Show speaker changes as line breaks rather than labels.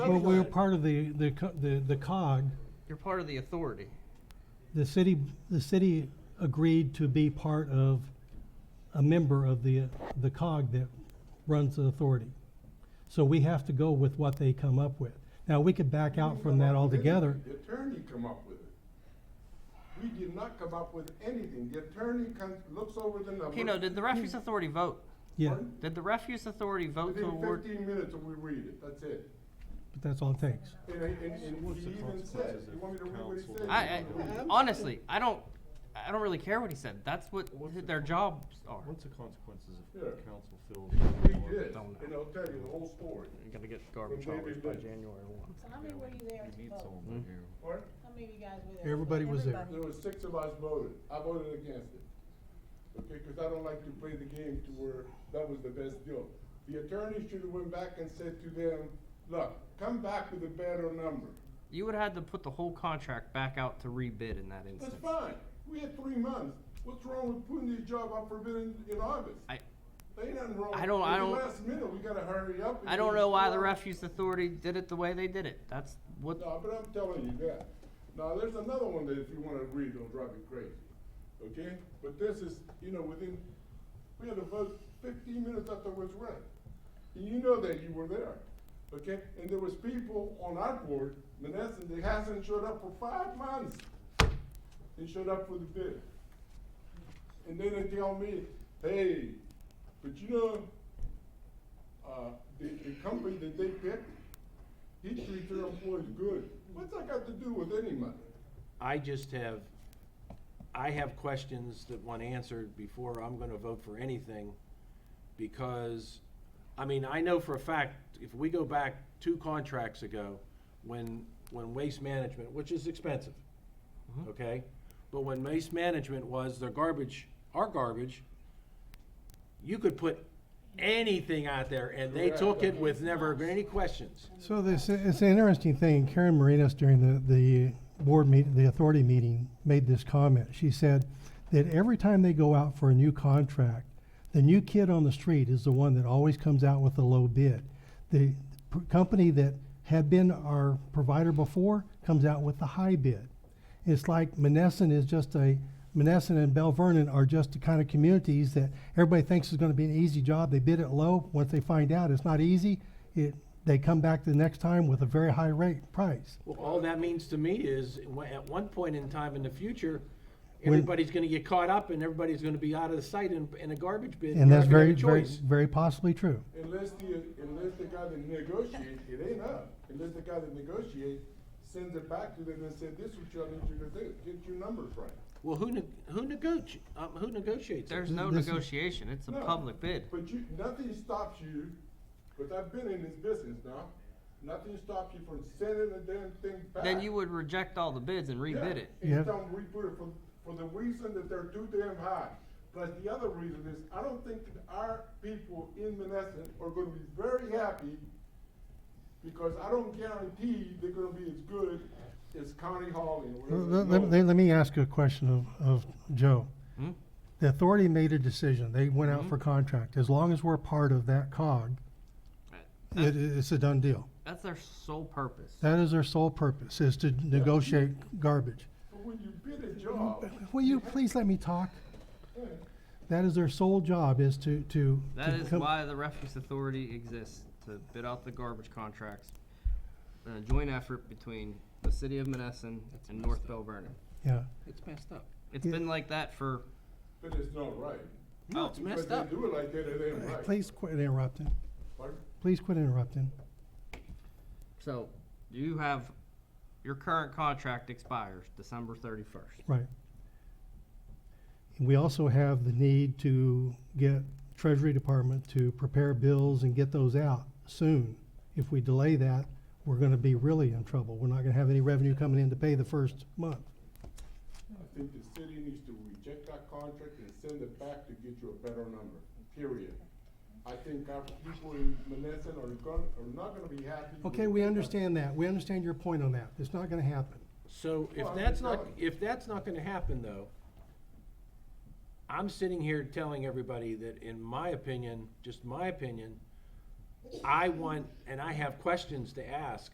But we're part of the, the, co- the, the cog,
You're part of the authority.
the city, the city agreed to be part of, a member of the, the cog that runs the authority. So we have to go with what they come up with. Now, we could back out from that altogether.
The attorney come up with it. We did not come up with anything. The attorney comes, looks over the numbers.
Keno, did the
hmm.
refuse authority vote?
Yeah,
Pardon?
Did the refuse authority vote to
Within
award?
fifteen minutes and we read it, that's it.
but that's all it takes.
And, and, and he even said, you want me to read what he said?
I, I, honestly, I don't, I don't really care what he said. That's what their jobs are.
What's the consequences if
Yeah.
council feels?
Read this,
Don't know.
and I'll tell you the whole story.
You're gonna get garbage
Maybe
hours by
they-
January one.
So how many were you there
You
to
need
vote?
someone here.
What?
How many of you guys were there?
Everybody was there.
There were six of us voted. I voted against it. Okay, because I don't like to play the game to where that was the best deal. The attorney should have went back and said to them, look, come back with a better number.
You would have had to put the whole contract back out to rebid in that
That's
instance.
fine. We had three months. What's wrong with putting this job up for bid in, in August?
I,
They done wrong.
I don't-
At
I
the
don't-
Last minute, we gotta hurry up. and
I don't
get
know why the
started.
refuse authority did it the way they did it. That's what,
No, but I'm telling you that. Now, there's another one that if you wanna read, it'll drive you crazy, okay? But this is, you know, within, we had a vote fifteen minutes after it was read. And you know that you were there, okay? And there was people on our board, Menneson, that hasn't showed up for five months. They showed up for the bid. And then they tell me, hey, but you know, uh, the, the company that they picked, he treats their employees good. What's that got to do with any money?
I just have, I have questions that want answered before I'm gonna vote for anything, because, I mean, I know for a fact, if we go back two contracts ago, when, when Waste Management, which is expensive, okay? But when Waste Management was their garbage, our garbage, you could put anything out there, and they took it with never any questions.
So this, it's an interesting thing. Karen Marinos during the, the board meet, the authority meeting, made this comment. She said that every time they go out for a new contract, the new kid on the street is the one that always comes out with the low bid. The p- company that had been our provider before comes out with the high bid. It's like Menneson is just a, Menneson and Bell Vernon are just the kind of communities that everybody thinks is gonna be an easy job. They bid it low. Once they find out it's not easy, it, they come back the next time with a very high rate price.
Well, all that means to me is, wh- at one point in time in the future, everybody's gonna get caught up and everybody's gonna be out of the sight in, in a garbage bin.
And
You're
that's
not gonna
very,
have a
very,
choice.
very possibly true.
Unless the, unless the guy that negotiates, it ain't up. Unless the guy that negotiates sends it back to them and said, this is what y'all need you to do, get your numbers right.
Well, who neg- who negotiates, um, who negotiates? that?
there's no
This is-
negotiation. It's a
No.
public bid.
But you, nothing stops you, because I've been in this business now, nothing stops you from sending the damn thing back.
Then you would reject all the bids and
Yeah,
rebid it.
And
Yeah.
you don't rebid it for, for the reason that they're too damn high. Plus, the other reason is, I don't think that our people in Menneson are gonna be very happy because I don't guarantee they're gonna be as good as County Hall and whatever.
Let, let- let- let me ask you a question of, of Joe.
Hmm?
The authority made a decision. They went out for contract. As long as we're part of that cog, it, it's a done deal.
That's their sole purpose.
That is their sole purpose, is to negotiate garbage.
But when you bid a job,
Will you please let me talk? That is their sole job, is to, to.
That
to
is
come-
why the refuse authority exists, to bid out the garbage contracts, in a joint effort between the city of Menneson and North Bell Vernon.
Yeah.
It's messed up.
It's
Yeah.
been like that for,
but it's not right.
No, it's
Because
messed up.
they do it like that, it ain't right.
Please quit interrupting.
Pardon?
Please quit interrupting.
so you have, your current contract expires December thirty-first.
Right. And We also have the need to get Treasury Department to prepare bills and get those out soon. If we delay that, we're gonna be really in trouble. We're not gonna have any revenue coming in to pay the first month.
I think the city needs to reject that contract and send it back to get you a better number, period. I think our people in Menneson are gonna, are not gonna be happy. with
Okay, we
that.
understand that. We understand your point on that. It's not gonna happen.
So if
Well, I'm
that's
just
not,
telling you.
if that's not gonna happen though, I'm sitting here telling everybody that in my opinion, just my opinion, I want, and I have questions to ask